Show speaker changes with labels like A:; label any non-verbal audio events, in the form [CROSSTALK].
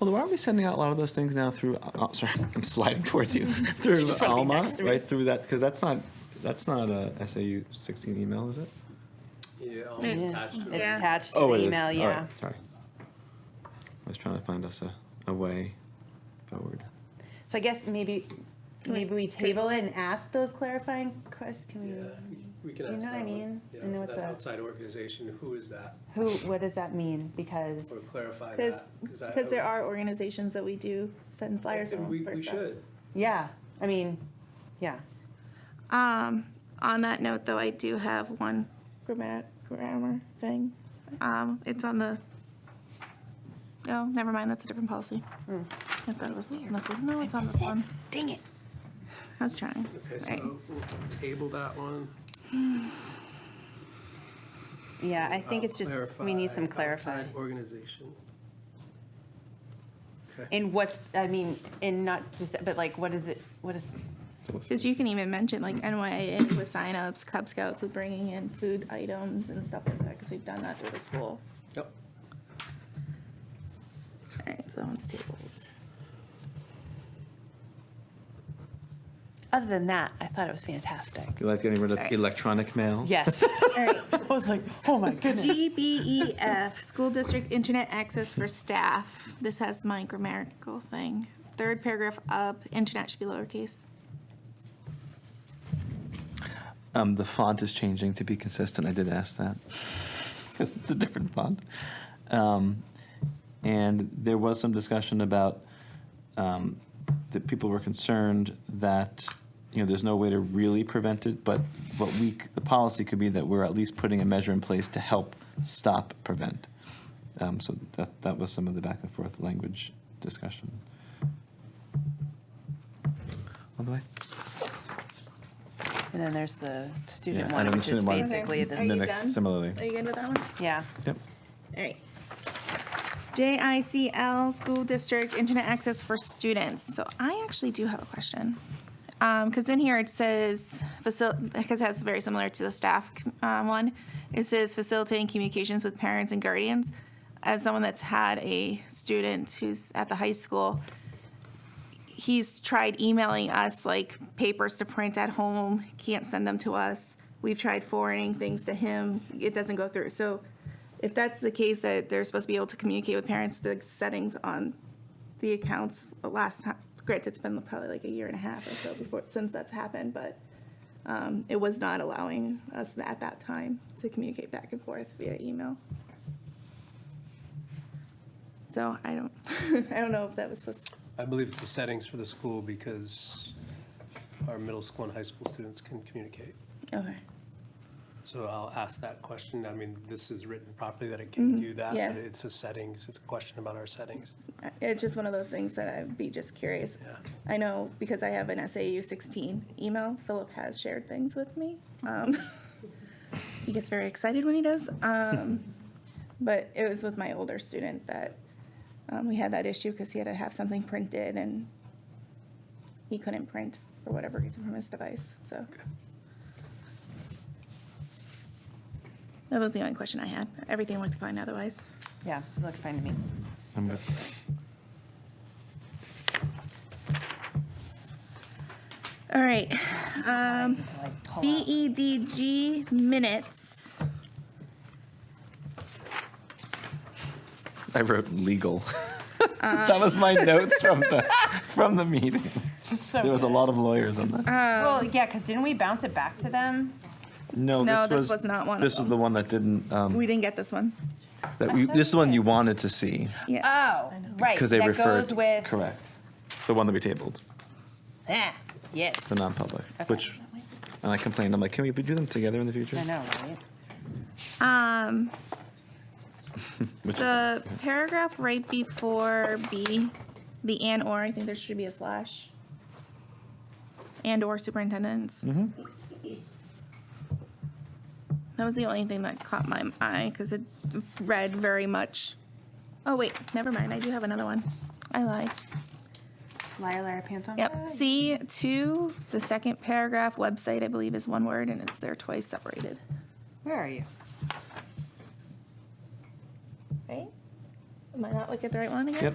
A: Although, aren't we sending out a lot of those things now through? Oh, sorry, [LAUGHS] I'm sliding towards you through
B: [LAUGHS] just wanna be
A: Alma,
B: next to me.
A: right through that because that's not that's not a SAU 16 email, is it?
C: Yeah, I'll
D: It-
C: attach to
B: It's
C: it.
D: Yeah.
B: attached to
A: Oh, it
B: the
A: is.
B: email,
A: All
B: yeah.
A: right, sorry, I was trying to find us a, a way forward.
B: So I guess maybe, maybe we table it and ask those clarifying questions, can
C: Yeah,
B: we,
C: we can
B: You
C: ask
B: know what I
C: that one.
B: mean?
C: Yeah,
B: I know
C: for
B: it's
C: that
B: a-
C: outside organization, who is that?
B: who, what does that mean? Because,
C: Or clarify
D: Because
C: that. I-
D: because there are organizations that we do send flyers
C: And
D: and
C: we,
D: for
C: we
D: stuff.
C: should.
B: yeah, I mean, yeah.
D: Um, on that note, though, I do have one grammar, grammar thing. Um, it's on the, oh, never mind, that's a different policy. I thought it was on this one. No, it's on this one.
B: Dang it.
D: I was trying.
C: Okay,
D: Right.
C: so we'll table that one.
B: Yeah, I think
C: Uh,
B: it's just, we need some clarifying.
C: Outside organization. Okay.
B: And what's, I mean, and not just, but like, what is it, what is,
A: So let's-
D: Because you can even mention like NYA with signups, Cub Scouts with bringing in food items and stuff like that, because we've done that through the school.
C: Yep.
D: All right, so that one's tabled.
B: other than that, I thought it was fantastic.
A: You like getting rid of
D: Sorry.
A: electronic mail?
B: Yes. [LAUGHS]
D: All right,
B: I was like, oh my goodness.
D: GBEF, E School District Internet Access for Staff. This has my grammatical thing. Third paragraph up, internet should be lowercase.
A: Um, the font is changing to be consistent. I did ask that. [LAUGHS] it's a different font. Um, and there was some discussion about um, that people were concerned that you know there's no way to really prevent it, but what we c- the policy could be that we're at least putting a measure in place to help stop prevent. Um, so that that was some of the back and forth language discussion. Although I
B: And then there's the student
A: Yeah,
B: one,
A: and the
B: which is
A: student one.
B: basically
D: Okay. Are you
B: the,
A: mimics
D: done?
A: similarly.
D: Are you good with that one?
B: yeah.
A: Yep.
D: All right. JICL, School District Internet Access for Students. So I actually do have a question. Because in here it says, because that's very similar to the staff um, one, it says facilitating communications with parents and guardians. As someone that's had a student who's at the high school, he's tried emailing us like papers to print at home, can't send them to us. We've tried forwarding things to him, it doesn't go through. So if that's the case that they're supposed to be able to communicate with parents, the settings on the accounts the last time, granted, it's been probably like a year and a half or so before, since that's happened, but um, it was not allowing us at that time to communicate back and forth via email. So I don't, [LAUGHS] I don't know if that was supposed,
C: I believe it's the settings for the school because our middle school and high school students can communicate.
D: okay.
C: So I'll ask that question. I mean, this is written properly that it
B: Mm-hmm.
C: can do that,
D: yeah.
C: but it's a settings, it's a question about our settings.
D: It's just one of those things that I'd be just curious.
C: Yeah.
D: I know because I have an SAU 16 email, Philip has shared things with me. Um, [LAUGHS] he gets very excited when he does. Um, but it was with my older student that um, we had that issue because he had to have something printed and he couldn't print for whatever reason from his device. So that was the only question I had. Everything looked fine otherwise.
B: Yeah, look fine to me.
A: I'm good.
D: All right. Um,
B: Like, pull out.
D: BEDG minutes.
A: I wrote legal. [LAUGHS] that was my notes from the from the meeting.
B: It's so
A: There was a
B: good.
A: lot of lawyers on that.
D: Uh,
B: Well, yeah, because didn't we bounce it back to them?
A: No,
D: No,
A: this
D: this
A: was,
D: was not one of
A: This was
D: them.
A: the one that didn't. Um,
D: We didn't get this one.
A: that we, this is the one you wanted to see
D: Yeah.
B: Oh, right.
A: because they
B: that
A: referred.
B: goes with.
A: correct. The one that we tabled,
B: Ah, yes.
A: the non-public,
B: Okay.
A: which, and I complained. I'm like, can we do them together in the future?
B: I know, right?
D: Um,
A: Which,
D: the paragraph right before B, the and or, I think there should be a slash. And or superintendents. That was the only thing that caught my eye because it read very much. Oh, wait, never mind. I do have another one. I lied.
B: Liar, liar, pants on fire.
D: Yep. C two, the second paragraph, website, I believe, is one word and it's there twice separated.
B: Where are you?
D: Right? Am I not looking at the right one again?
A: yep.